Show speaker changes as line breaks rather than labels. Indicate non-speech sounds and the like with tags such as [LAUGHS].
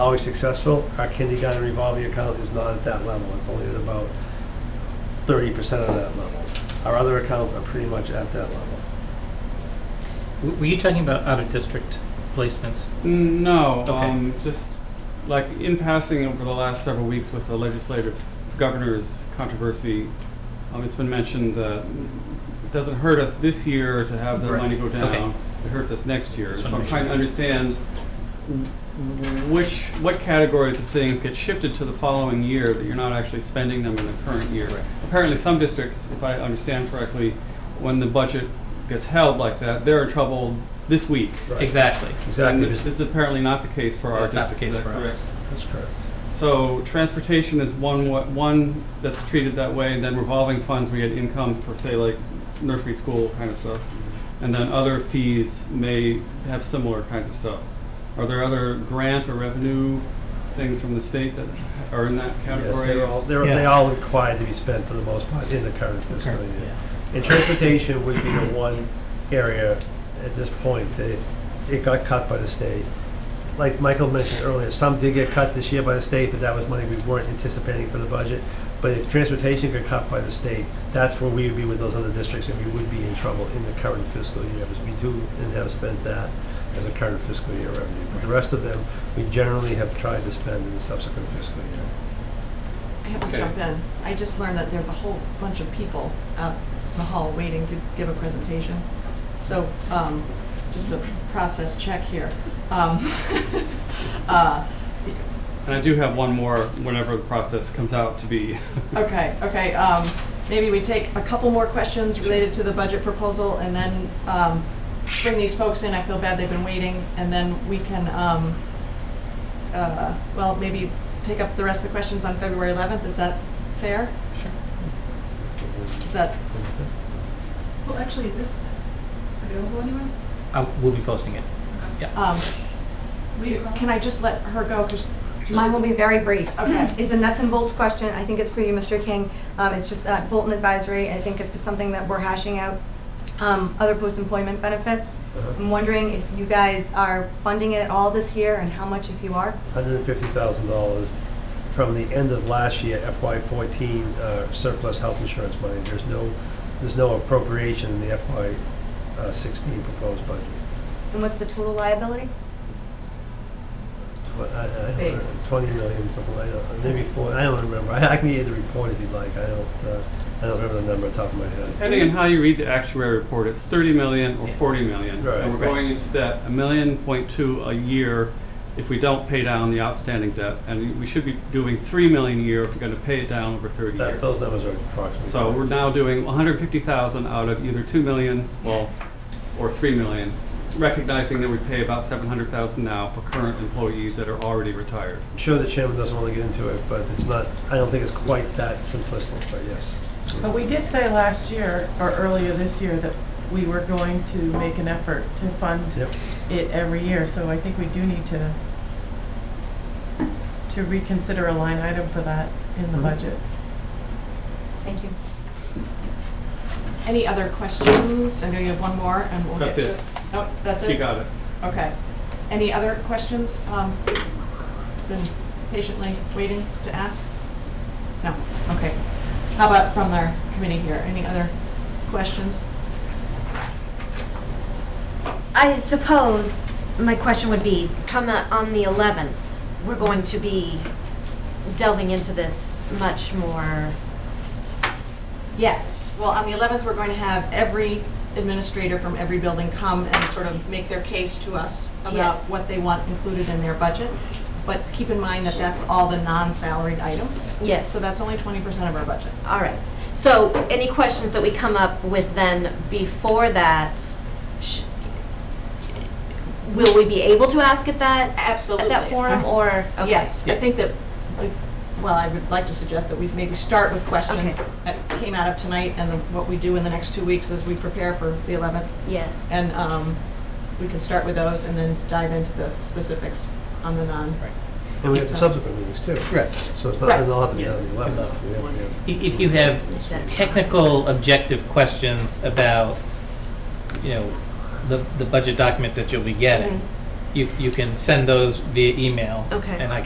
always successful. Our kindergarten revolving account is not at that level. It's only at about thirty percent of that level. Our other accounts are pretty much at that level.
W- Were you talking about out-of-district placements?
No,
Okay.
um, just like in passing over the last several weeks with the legislative governor's controversy, um, it's been mentioned that it doesn't hurt us this year to have the
Right.
money go
Okay.
down. It hurts us next year.
Just
So
wanna
I'm
make
trying to
sure.
understand w- which, what categories of things get shifted to the following year that you're not actually spending them in the current year. Apparently, some districts, if I understand correctly, when the budget gets held like that, they're in trouble this week.
Exactly.
Exactly.
And this is apparently not the case for our
That's not the
district,
case
is that
for us.
correct?
That's correct.
So transportation is one, wa- one that's treated that way, and then revolving funds, we get income for, say, like nursery school kind of stuff. And then other fees may have similar kinds of stuff. Are there other grant or revenue things from the state that are in that
Yes,
category?
they're all, they're, they
Yeah.
all required to be spent for the most part in the current fiscal
Current,
year. And transportation would be the one area at this point that if it got cut by the state. Like Michael mentioned earlier, some did get cut this year by the state, but that was money we weren't anticipating for the budget. But if transportation got cut by the state, that's where we would be with those other districts and we would be in trouble in the current fiscal year because we do and have spent that as a current fiscal year revenue. But the rest of them, we generally have tried to spend in the subsequent fiscal year.
I have
Okay.
to jump in. I just learned that there's a whole bunch of people out in the hall waiting to give a presentation. So, um, just a process check here. Um, [LAUGHS] uh,
And I do have one more whenever the process comes out to be.
Okay, okay, um, maybe we take a couple more questions related to the budget proposal and then, um, bring these folks in. I feel bad they've been waiting. And then we can, um, uh, well, maybe take up the rest of the questions on February eleventh. Is that fair? Is that
Well, actually, is this available anywhere?
Uh, We'll be posting it. Yeah.
Um, we- Can I just let her go, because
Mine will be very brief. Mm-hmm.
Okay.
It's a nuts and bolts question. I think it's for you, Mr. King. Um, It's just uh, Bolton Advisory. I think if it's something that we're hashing out, um, other post-employment benefits.
Uh-huh.
I'm wondering if you guys are funding it at all this year and how much if you are?
$150,000 from the end of last year FY14 uh, surplus health insurance money. There's no, there's no appropriation in the FY16 proposed budget.
And what's the total liability?
Tw- I- I don't
Big.
know, 20 million, something like that, maybe four, I don't remember. [LAUGHS] I I can get the report if you'd like. I don't, uh, I don't remember the number off the top of my head.
Depending on how you read the actuary report, it's thirty million or
Yeah.
forty million.
Right.
And we're going into debt, a million point two a year if we don't pay down the outstanding debt. And we should be doing three million a year if we're gonna pay it down over thirty
That- Those
years.
numbers are approximately.
So we're now doing hundred fifty thousand out of either two million, well, or three million, recognizing that we pay about seven hundred thousand now for current employees that are already retired.
I'm sure the chairman doesn't want to get into it, but it's not, I don't think it's quite that simplistic, but yes.
But we did say last year, or earlier this year, that we were going to make an effort to fund
Yep.
it every year, so I think we do need to, to reconsider a line item for that in the
Mhm.
budget.
Thank you.
any other questions? I know you have one more, and we'll
That's
get to
it.
Nope, that's it?
You got it.
Okay. Any other questions? Um, Been patiently waiting to ask? No, okay. How about from our committee here? Any other questions?
I suppose my question would be, come uh, on the 11th, we're going to be delving into this much more.
Yes, well, on the 11th, we're going to have every administrator from every building come and sort of make their case to us about
Yes.
what they want included in their budget. But keep in mind that that's all the non-salaried items.
Yes.
So that's only 20% of our budget.
All right. So any questions that we come up with then before that, sh- will we be able to ask at that,
Absolutely.
at that forum or? okay.
Yes, I
Yes.
think that, we- well, I would like to suggest that we maybe start with questions
Okay.
that came out of tonight and the- what we do in the next two weeks as we prepare for the 11th.
Yes.
And um, we can start with those and then dive into the specifics on the non.
Right.
And we have the subsequent meetings too.
Right.
So it's not, it'll have to be
Right.
on the
Yeah.
11th. We have- we have-
I- If you have technical objective questions about, you know, the, the budget document that you'll be getting, you, you can send those via email.
Okay.
And I